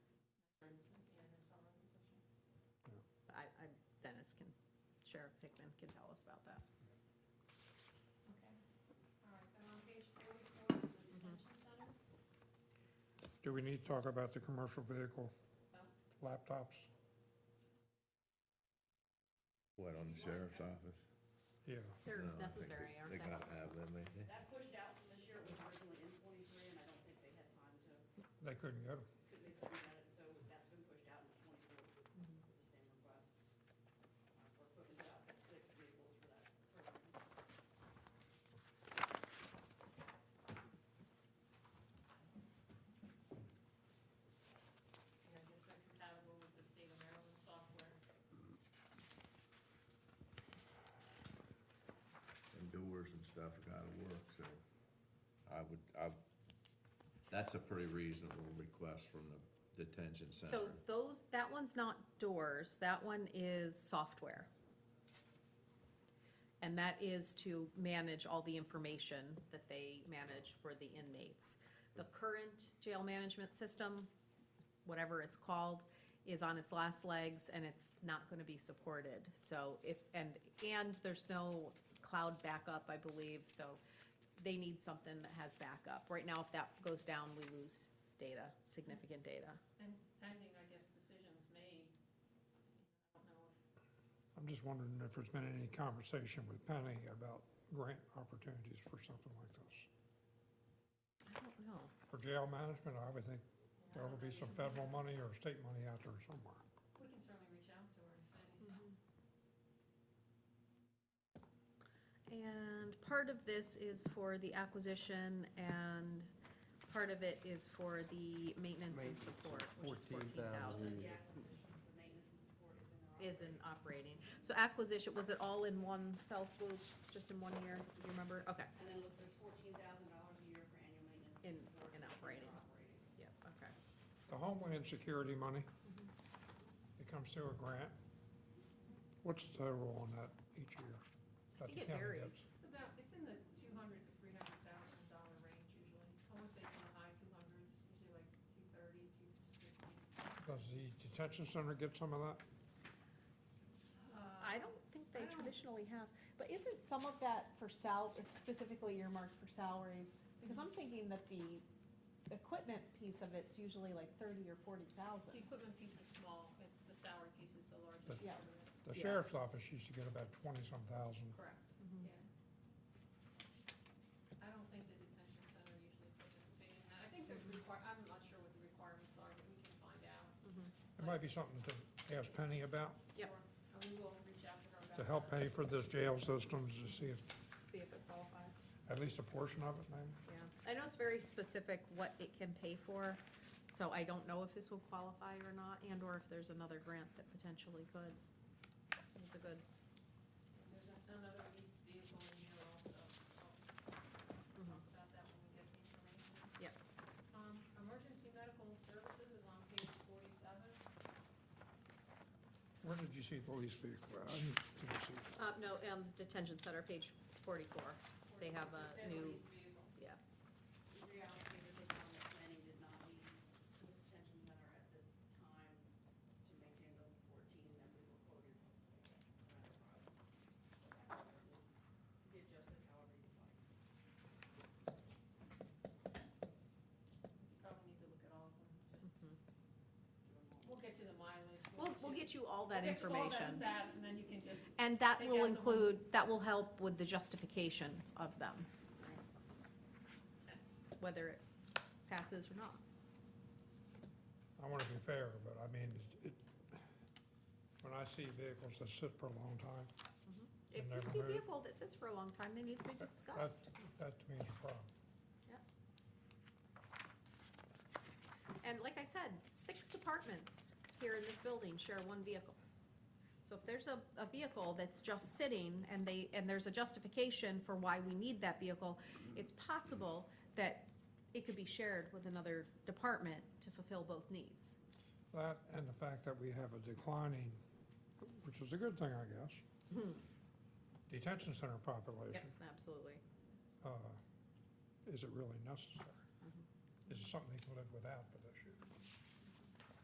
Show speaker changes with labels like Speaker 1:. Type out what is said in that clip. Speaker 1: guys can, Sheriff Hickman can tell us about that.
Speaker 2: Okay. All right, then on page forty-four is the detention
Speaker 1: Mm-hmm.
Speaker 2: center.
Speaker 3: Do we need to talk about the commercial vehicle
Speaker 2: No.
Speaker 3: laptops?
Speaker 4: What, on the sheriff's office?
Speaker 3: Yeah,
Speaker 1: They're
Speaker 4: No, I think
Speaker 1: necessary,
Speaker 4: they-
Speaker 1: aren't
Speaker 4: They
Speaker 1: they?
Speaker 4: gotta have them, ain't they?
Speaker 5: That pushed out from this year, it was originally in twenty-three, and I don't think they had time to,
Speaker 3: they couldn't get them.
Speaker 5: could they couldn't get it, so that's been pushed out into twenty-four with the same request. Uh, We're putting about six vehicles for that program.
Speaker 2: And I guess they're compatible with the state of Maryland software.
Speaker 4: And doors and stuff gotta work, so I would, I, that's a pretty reasonable request from the detention center.
Speaker 1: So those, that one's not doors, that one is software. And that is to manage all the information that they manage for the inmates. The current jail management system, whatever it's called, is on its last legs and it's not gonna be supported. So if, and, and there's no cloud backup, I believe, so they need something that has backup. Right now, if that goes down, we lose data, significant data.
Speaker 2: And pending, I guess, decisions made. I don't know if,
Speaker 3: I'm just wondering if there's been any conversation with Penny about grant opportunities for something like this.
Speaker 1: I don't know.
Speaker 3: For jail management, I would think
Speaker 2: yeah, I
Speaker 3: there
Speaker 2: don't
Speaker 3: would
Speaker 2: know
Speaker 3: be
Speaker 2: the
Speaker 3: some
Speaker 2: answer to
Speaker 3: federal
Speaker 2: that.
Speaker 3: money or state money out there somewhere.
Speaker 2: We can certainly reach out to her and say,
Speaker 1: Mm-hmm. And part of this is for the acquisition and part of it is for the maintenance and
Speaker 6: Maintenance,
Speaker 1: support, which is fourteen
Speaker 6: 14,000.
Speaker 1: thousand,
Speaker 5: The acquisition for maintenance and support is in there.
Speaker 1: is in operating. So acquisition, was it all in one fell swoop, just in one year? Do you remember? Okay,
Speaker 5: And then look, there's fourteen thousand dollars a year for annual maintenance. and
Speaker 1: In-
Speaker 5: support
Speaker 1: in
Speaker 5: for
Speaker 1: operating.
Speaker 5: Operating.
Speaker 1: yeah, okay.
Speaker 3: The Homeland Security money, it comes through a grant. What's the total on that each year?
Speaker 1: I
Speaker 3: that the
Speaker 1: think it
Speaker 3: county
Speaker 1: varies.
Speaker 3: gets?
Speaker 2: it's about, it's in the two hundred to three hundred thousand dollar range usually. I wanna say it's in the high two hundreds, usually like two thirty, two sixty.
Speaker 3: Does the detention center get some of that?
Speaker 2: Uh,
Speaker 1: I don't think they traditionally have, but isn't some of that for sal, it's specifically earmarked for salaries? Because I'm thinking that the equipment piece of it's usually like thirty or forty thousand.
Speaker 2: The equipment piece is small, it's the salary piece is the largest
Speaker 3: But-
Speaker 2: part
Speaker 1: Yeah.
Speaker 2: of it.
Speaker 3: The
Speaker 1: Yeah.
Speaker 3: sheriff's office used to get about twenty-some thousand.
Speaker 2: Correct,
Speaker 1: Mm-hmm.
Speaker 2: yeah. I don't think the detention center usually participates in that. I think there's
Speaker 1: Mm-hmm.
Speaker 2: require, I'm not sure what the requirements are, but we can find out.
Speaker 3: It might be something to ask Penny about,
Speaker 1: Yep.
Speaker 2: Or- And we will reach out to her about that.
Speaker 3: to help pay for this jail systems, to see if,
Speaker 1: See if it qualifies.
Speaker 3: at least a portion of it maybe.
Speaker 1: Yeah, I know it's very specific what it can pay for, so I don't know if this will qualify or not, and/or if there's another grant that potentially could. It's a good,
Speaker 2: There's an- another leased vehicle in here also, so we'll
Speaker 1: mm-hmm.
Speaker 2: talk about that when we get the information.
Speaker 1: Yep.
Speaker 2: Um, emergency medical services is on page forty-seven.
Speaker 3: Where did you see police vehicle? I didn't think I see it.
Speaker 1: uh, no, um, detention center, page forty-four, They have a
Speaker 2: They
Speaker 1: new-
Speaker 2: leased vehicle.
Speaker 5: We reallocated it on the planning, did not need the detention center at this time to make it the fourteen that we were quoted. Be adjusted however you like.
Speaker 2: You probably need to look at all of them, just. We'll get you the mileage.
Speaker 1: we'll, we'll
Speaker 2: you-
Speaker 1: get you all that
Speaker 2: we'll get you all that
Speaker 1: information.
Speaker 2: stats, and then you can just
Speaker 1: And that
Speaker 2: Take
Speaker 1: will
Speaker 2: out the ones-
Speaker 1: include, that will help with the justification of them. Whether it passes or not.
Speaker 3: I want to be fair, but I mean, it- it, when I see vehicles that sit for a long time,
Speaker 1: If
Speaker 3: And
Speaker 1: you see a
Speaker 3: neighborhood.
Speaker 1: vehicle that sits for a long time, they need to be
Speaker 3: that's,
Speaker 1: discussed.
Speaker 3: that to me is a problem.
Speaker 1: And like I said, six departments here in this building share one vehicle. So if there's a, a vehicle that's just sitting and they, and there's a justification for why we need that vehicle, it's possible that it could be shared with another department to fulfill both needs.
Speaker 3: That and the fact that we have a declining, which is a good thing, I guess, detention center
Speaker 1: Yep,
Speaker 3: population.
Speaker 1: absolutely.
Speaker 3: uh, Is it really necessary? Is it something they can live without for this year?